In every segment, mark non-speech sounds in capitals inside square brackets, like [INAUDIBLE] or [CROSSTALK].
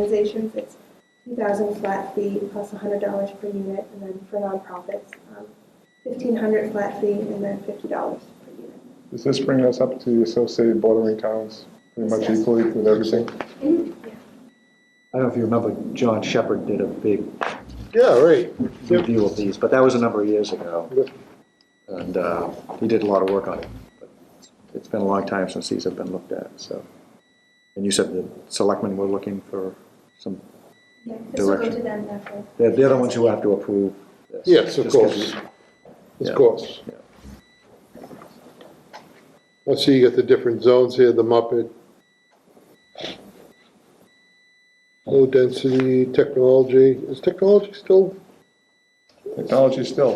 organizations, it's two thousand flat fee plus hundred dollars per unit, and then for nonprofits, um, fifteen hundred flat fee and then fifty dollars per unit. Does this bring us up to the associated bordering towns pretty much Yes. equally with everything? Mm-hmm. I don't know if you remember, John Shepherd did a big Yeah, right. Yep. review of these, but that was a number of years ago. And uh, he did a lot of work on it. but It's been a long time since these have been looked at, so. And you said the selectmen were looking for some, Yeah, this will go to Direction. them after. they're they're the ones who have to approve this. Yes, of Just 'cause course. we- Of Yeah. course. Yeah. Let's see, you got the different zones here, the Muppet, low density, technology. Is technology still, Technology still,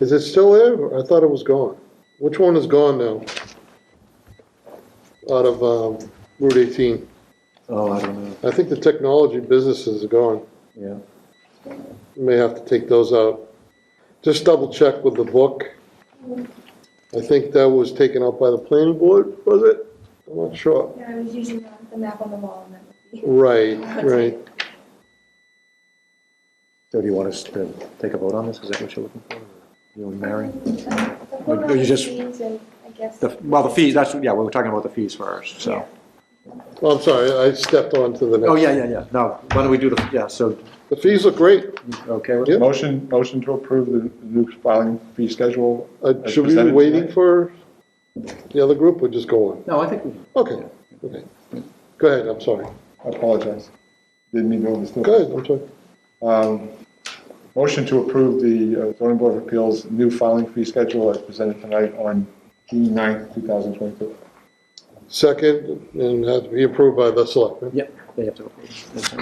is it still there? I thought it was gone. Which one is gone now? Out of um, Route 18. Oh, I don't know, I think the technology businesses are gone. yeah. You may have to take those out. Just double check with the book. I think that was taken out by the planning board, was it? I'm not sure. Yeah, I was using the- the map on the wall and that would be. Right, right. So do you want us to take a vote on this? Is that what you're looking for? You and Mary? Uh, The whole Or amount you of just- fees and I guess. The- Well, the fees, that's, yeah, we were talking about the fees first, so. Well, I'm sorry, I stepped on to the next. Oh, yeah, yeah, yeah. No, why don't we do the, yeah, so, The fees look great. you okay with Yep. motion, motion to approve the new filing fee schedule. Uh, as Should we be presented waiting tonight. for the other group or just go on? No, I think we Okay, okay. Go ahead, I'm sorry. I apologize. Didn't mean to overstep. Go ahead, I'm sorry. Um, Motion to approve the uh, zoning board of appeals new filing fee schedule as presented tonight on June 9th, 2022. Second, and has to be approved by the selectmen. Yep, they have to. approve.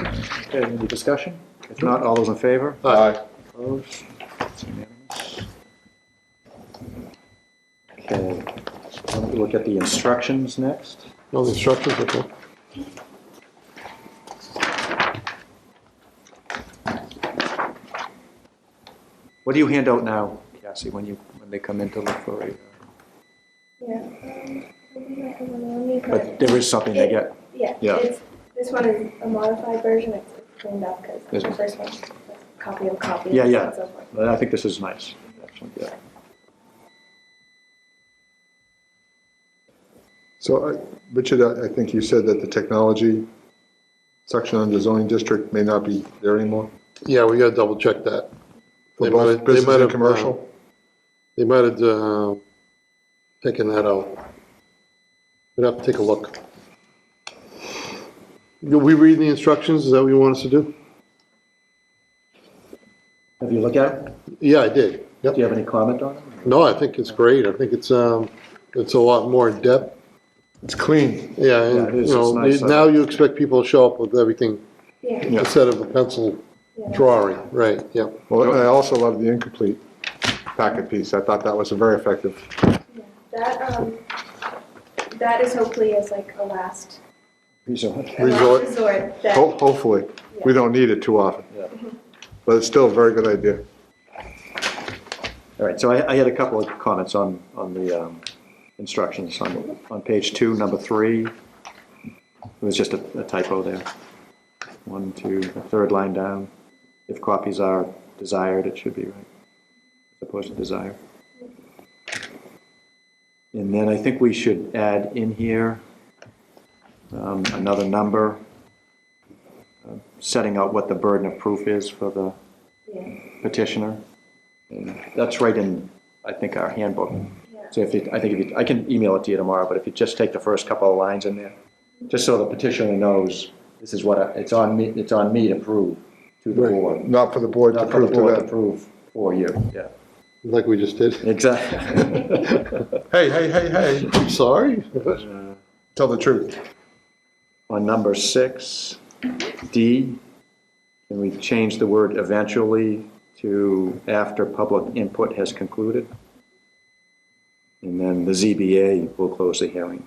Okay, any discussion? If not, all those in favor? Aye. Opposed? It's unanimous. Okay, Why don't we look at the instructions next. No, the instructions, okay. What do you hand out now, Cassie, when you, when they come in to look for a, Yeah. um, I think I have one on me, but- but there is something they get. Yeah, Yeah. it's, this one is a modified version, it's it's cleaned up because Is the it? first one's just a copy of copy. Yeah, yeah. and so forth. But I think this is nice, actually, yeah. So, I- Richard, I I think you said that the technology section on the zoning district may not be there anymore? Yeah, we gotta double check that. For They might both have- they business might and have, uh, commercial? They might have uh, taken that out. We'd have to take a look. Do we read the instructions? Is that what you want us to do? Have you looked at it? Yeah, I did. Do you Yep. have any comment on it? No, I think it's great. I think it's, um, it's a lot more in depth. It's clean. Yeah, Yeah, it and, is. you know, It's nice. uh, now you expect people to show up with everything Yeah. Yeah. instead of a pencil yeah. drawing, right? Yep. Well, I also love the incomplete packet piece. I thought that was very effective. Yeah. That, um, that is hopefully as like a last, Resort. a last Resort. resort that, Ho- Hopefully. We don't need it too often. Yeah. But it's still a very good idea. All right, so I, I had a couple of comments on, on the um, instructions on, on page two, number three. It was just a a typo there. One, two, the third line down. If copies are desired, it should be right, as opposed to desire. And then I think we should add in here um, another number, uh, setting out what the burden of proof is for the yeah, petitioner. And That's right in, I think, our handbook. yeah, So if you, I think if you, I can email it to you tomorrow, but if you just take the first couple of lines in there, just so the petitioner knows, this is what, I- it's on me, it's on me to prove to the board. Not for the board to Not for the prove to board to that. prove for you, yeah. Like we just did. Exactly. Hey, hey, hey, hey, I'm [LAUGHS] sorry. tell the truth. On number six, D, can we change the word eventually to after public input has concluded? And then the ZBA will close the hearing.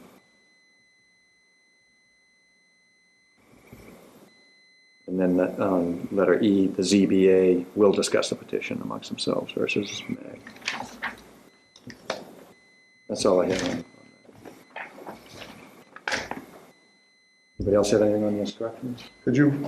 And then, um, letter E, the ZBA will discuss the petition amongst themselves versus Meg. That's all I have on on that. Anybody else have anything on the instructions? Could you